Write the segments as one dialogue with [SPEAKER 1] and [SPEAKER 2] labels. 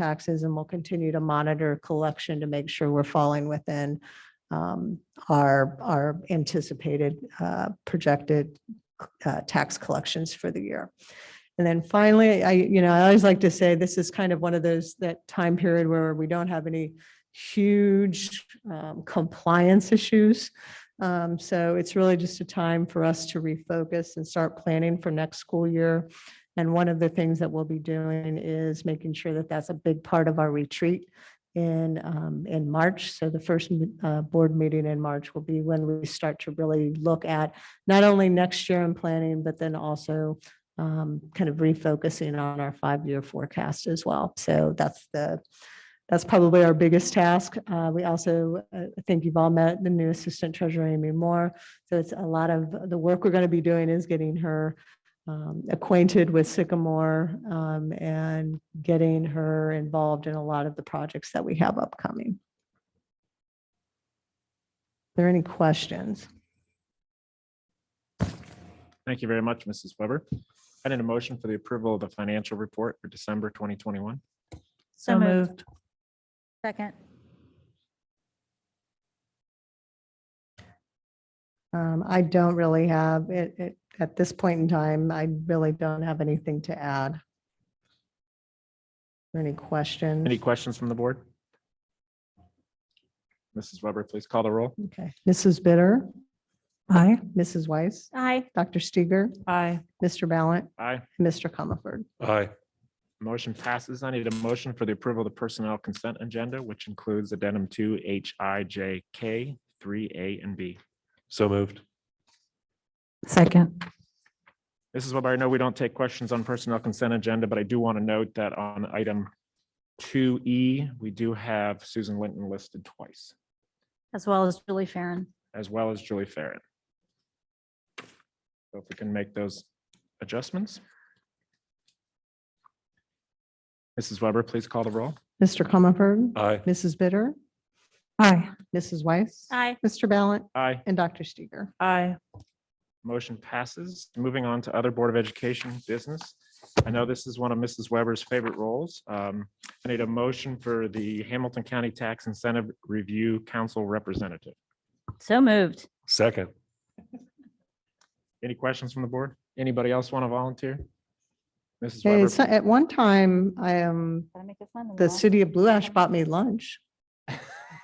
[SPEAKER 1] taxes and we'll continue to monitor collection to make sure we're falling within um, our, our anticipated uh, projected uh, tax collections for the year. And then finally, I, you know, I always like to say this is kind of one of those, that time period where we don't have any huge um, compliance issues. Um, So it's really just a time for us to refocus and start planning for next school year. And one of the things that we'll be doing is making sure that that's a big part of our retreat in, um, in March. So the first, uh, board meeting in March will be when we start to really look at not only next year in planning, but then also, um, kind of refocusing on our five-year forecast as well. So that's the, that's probably our biggest task. Uh, we also, uh, I think you've all met the new Assistant Treasurer, Amy Moore. So it's a lot of, the work we're going to be doing is getting her, um, acquainted with Sycamore um, and getting her involved in a lot of the projects that we have upcoming. Are there any questions?
[SPEAKER 2] Thank you very much, Mrs. Weber. I need a motion for the approval of the financial report for December 2021.
[SPEAKER 3] So moved.
[SPEAKER 4] Second.
[SPEAKER 1] Um, I don't really have it, it- at this point in time, I really don't have anything to add. Any questions?
[SPEAKER 2] Any questions from the board? Mrs. Weber, please call the roll.
[SPEAKER 1] Okay, Mrs. Bitter,
[SPEAKER 3] Aye.
[SPEAKER 1] Mrs. Weiss,
[SPEAKER 4] Aye.
[SPEAKER 1] Dr. Steger,
[SPEAKER 3] Aye.
[SPEAKER 1] Mr. Ballant,
[SPEAKER 2] Aye.
[SPEAKER 1] and Mr. Comiford.
[SPEAKER 5] Aye,
[SPEAKER 2] Motion passes. I need a motion for the approval of the personnel consent agenda, which includes addendum two, H, I, J, K, three, A, and B.
[SPEAKER 5] so moved.
[SPEAKER 3] Second.
[SPEAKER 2] Mrs. Weber, I know we don't take questions on personnel consent agenda, but I do want to note that on item two E, we do have Susan Linton listed twice,
[SPEAKER 4] As well as Julie Farren.
[SPEAKER 2] as well as Julie Farren. So if we can make those adjustments. Mrs. Weber, please call the roll.
[SPEAKER 1] Mr. Comiford,
[SPEAKER 5] Aye,
[SPEAKER 1] Mrs. Bitter,
[SPEAKER 3] Aye.
[SPEAKER 1] Mrs. Weiss,
[SPEAKER 4] Aye.
[SPEAKER 1] Mr. Ballant,
[SPEAKER 2] Aye.
[SPEAKER 1] and Dr. Steger.
[SPEAKER 3] Aye.
[SPEAKER 2] Motion passes. Moving on to other Board of Education business. I know this is one of Mrs. Weber's favorite roles. Um, I need a motion for the Hamilton County Tax Incentive Review Council Representative.
[SPEAKER 4] So moved.
[SPEAKER 5] second.
[SPEAKER 2] Any questions from the board? Anybody else want to volunteer? Mrs.
[SPEAKER 1] Hey,
[SPEAKER 2] Weber,
[SPEAKER 1] so at one time, I um
[SPEAKER 4] Gotta make it fun.
[SPEAKER 1] the city of Blue Ash bought me lunch.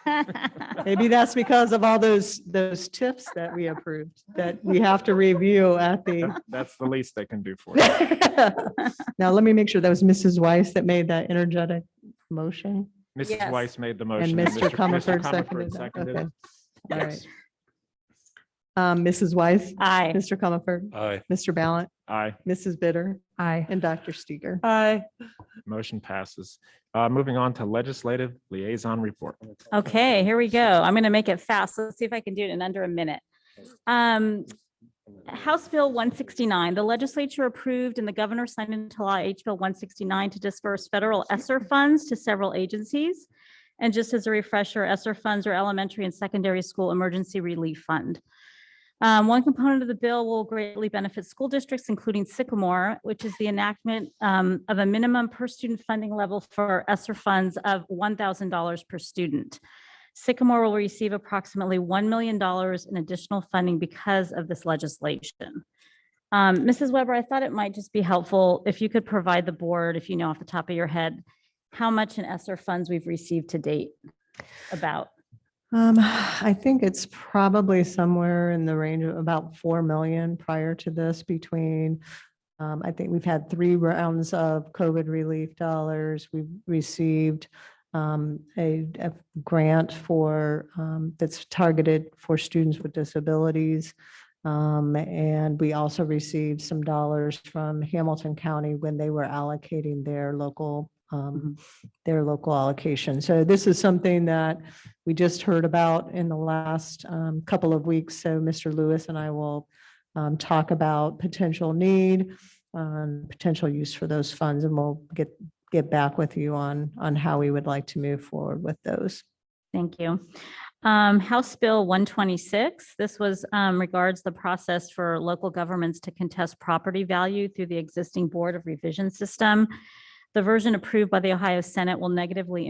[SPEAKER 1] Maybe that's because of all those, those tips that we approved, that we have to review at the.
[SPEAKER 2] that- that's the least they can do for you.
[SPEAKER 1] Now, let me make sure that was Mrs. Weiss that made that energetic motion
[SPEAKER 2] Mrs.
[SPEAKER 4] Yes.
[SPEAKER 2] Weiss made the
[SPEAKER 1] and
[SPEAKER 2] motion.
[SPEAKER 1] Mr. Comerford seconded that.
[SPEAKER 2] seconded
[SPEAKER 1] Okay.
[SPEAKER 2] it.
[SPEAKER 1] All
[SPEAKER 2] Yes.
[SPEAKER 1] right. Um, Mrs. Weiss,
[SPEAKER 4] Aye.
[SPEAKER 1] Mr. Comerford,
[SPEAKER 5] Aye,
[SPEAKER 1] Mr. Ballant,
[SPEAKER 2] Aye,
[SPEAKER 1] Mrs. Bitter,
[SPEAKER 3] Aye.
[SPEAKER 1] and Dr. Steger.
[SPEAKER 3] Aye.
[SPEAKER 2] motion passes. Uh, Moving on to Legislative Liaison Report.
[SPEAKER 4] Okay, here we go. I'm going to make it fast. Let's see if I can do it in under a minute. Um, House Bill 169, the legislature approved and the governor signed into law H Bill 169 to disperse federal ESSER funds to several agencies. And just as a refresher, ESSER funds are elementary and secondary school emergency relief fund. Um, One component of the bill will greatly benefit school districts, including Sycamore, which is the enactment um, of a minimum per student funding level for ESSER funds of $1,000 per student. Sycamore will receive approximately $1 million in additional funding because of this legislation. Um, Mrs. Weber, I thought it might just be helpful if you could provide the board, if you know off the top of your head, how much in ESSER funds we've received to date about.
[SPEAKER 1] Um, I think it's probably somewhere in the range of about 4 million prior to this between, um, I think we've had three rounds of COVID relief dollars. We've received um, a, a grant for, um, that's targeted for students with disabilities. Um, and we also received some dollars from Hamilton County when they were allocating their local, um, their local allocation. So this is something that we just heard about in the last um, couple of weeks. So Mr. Lewis and I will um, talk about potential need, um, potential use for those funds, and we'll get, get back with you on, on how we would like to move forward with those.
[SPEAKER 4] Thank you. Um, House Bill one twenty-six, this was, um, regards the process for local governments to contest property value through the existing Board of Revision System. The version approved by the Ohio Senate will negatively